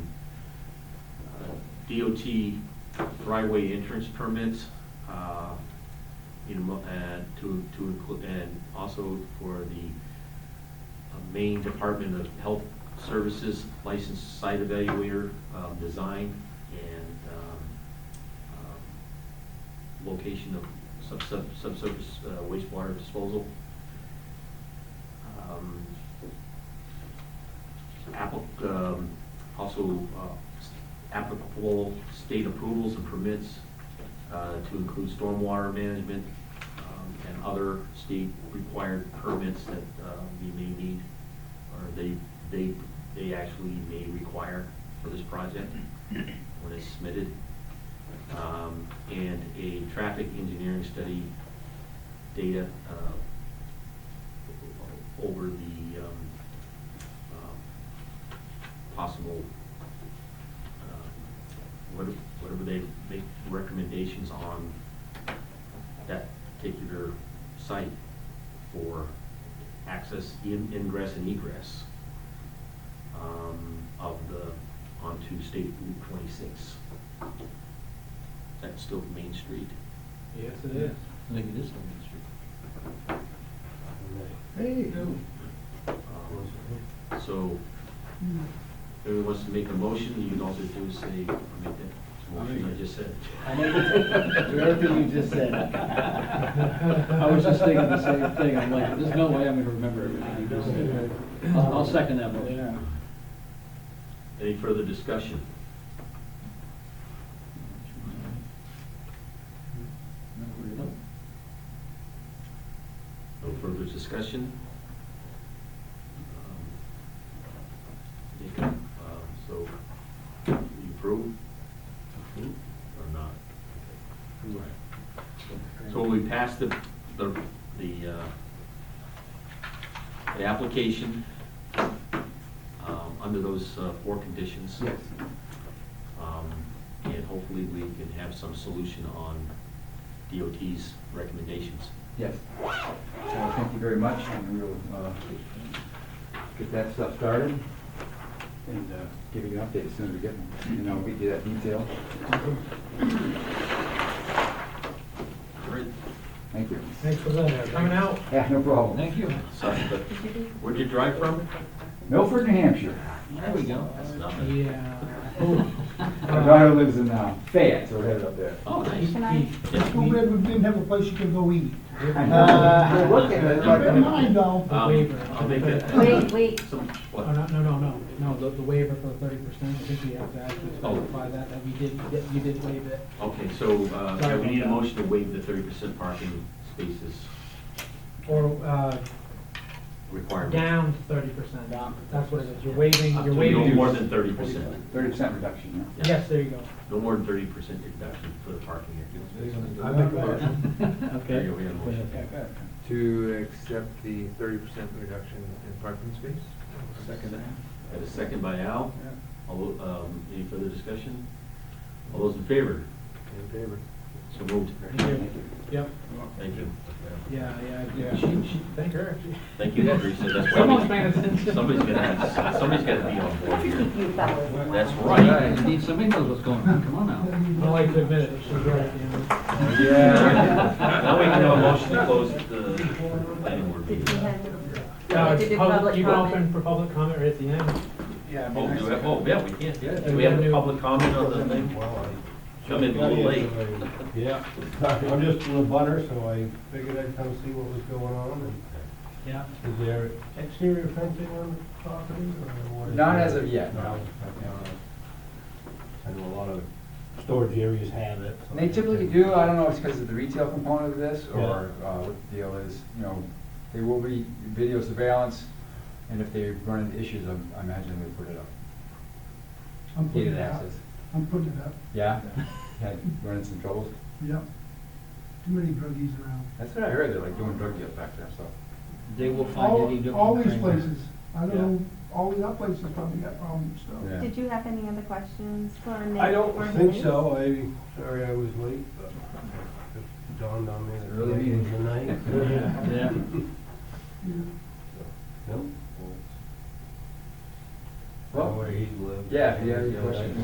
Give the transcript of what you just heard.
DOT driveway entrance permits, uh, you know, and to, to include, and also for the uh, Maine Department of Health Services licensed site evaluator, um, design and, um, um, location of sub, sub, subsurface uh, wastewater disposal. Um, Apple, um, also, uh, applicable state approvals and permits, uh, to include stormwater management, um, and other state-required permits that, uh, we may need, or they, they, they actually may require for this project when it's submitted. Um, and a traffic engineering study data, uh, over the, um, um, possible, uh, what- whatever they make recommendations on that particular site for access, in- ingress and egress um, of the, onto State Route 26. That's still Main Street. Yes, it is. I think it is on Main Street. Hey. Um, So, if anyone wants to make a motion, you can also do say, make that motion I just said. I make it- Everything you just said. I I was just thinking the same thing, I'm like, there's no way I'm gonna remember everything you just said. I'll, I'll second that motion. Any further discussion? No further discussion? Um, yeah, um, So, you approve? Approve. Or not? So we passed the, the, the, uh, the application, um, under those uh, four conditions. Yes. Um, And hopefully we can have some solution on DOT's recommendations. Yes. Well, thank you very much, and we'll, uh, get that stuff started and, uh, give you an update as soon as we get them. And I'll get you that detail. All right, Thank you. Thanks for that. Coming out. Yeah, no problem. Thank you. sorry, but where'd you drive from? Milford, New Hampshire. There we go. That's nothing. Yeah. My daughter lives in, uh, Fayette, so we're headed up there. Oh, nice. Can I, Yeah, Too we- bad we didn't have a place you could go eat. Uh, We're Uh, looking at it like- Never mind though. Um, I'll make that. wait, wait, Some- what? Oh, no, no, no, no, no, the, the waiver for the thirty percent, I think we have to actually Oh. clarify that, that we did, that you did waive it. Okay, so, uh, yeah, we need a motion to waive the thirty percent parking spaces Or, uh, requirement. down thirty percent, that's what it is, you're waiving, Up you're to waiving. No more than thirty percent. Thirty percent reduction, yeah. Yes, there you go. No more than thirty percent reduction for the parking area. I make a motion There you go, we have a motion. to accept the thirty percent reduction in parking space. Second. Got a second by Al. All, tho- um, any further discussion? All those in favor? In favor. So moved. Thank you. Yep, Thank you. yeah, yeah, yeah, she, she, thank her. Thank you, Teresa. That's why Someone's we- paying attention. Somebody's gonna have, somebody's gotta be on board I think here. you fellas want. That's Right, right. indeed, somebody knows what's going on, come on now. I like to admit it, she's right, you know. Yeah. Now we can have a motion to close the planning board Did we meeting. have, we Uh, have to do public- public You open comment? for public comment right at the end. Oh, do we have- oh, yeah, we can't, yeah. Do we have a public comment on the thing? Come in a little late. Yeah. I'm just a butter, so I figured I'd come see what was going on. Yeah. and Is there exterior fencing on the property or what? is Not there? as of yet, no. I know a lot of storage areas have it. so- And They typically do, I don't know if it's because of the retail component of this, or Yeah. uh, what the deal is, you know, they will be video surveillance, and if they run into issues, I'm- I imagine they put it up. I'm putting Gated it up. access. I'm putting it up, Yeah? Had run into some troubles? yep. Too many druggies around. That's what I heard, they're like doing drug deals back there, so. They will find any All, different. all these places, I don't Yeah. know, all the other places probably got problems, so. Yeah. Did you have any other questions for Nick? I don't or think Liz? so, I, sorry I was late, but it dawned on me that Early it was meeting. the night. Yeah. Yeah. Nope. Well, Where he lives. yeah, if you have any questions.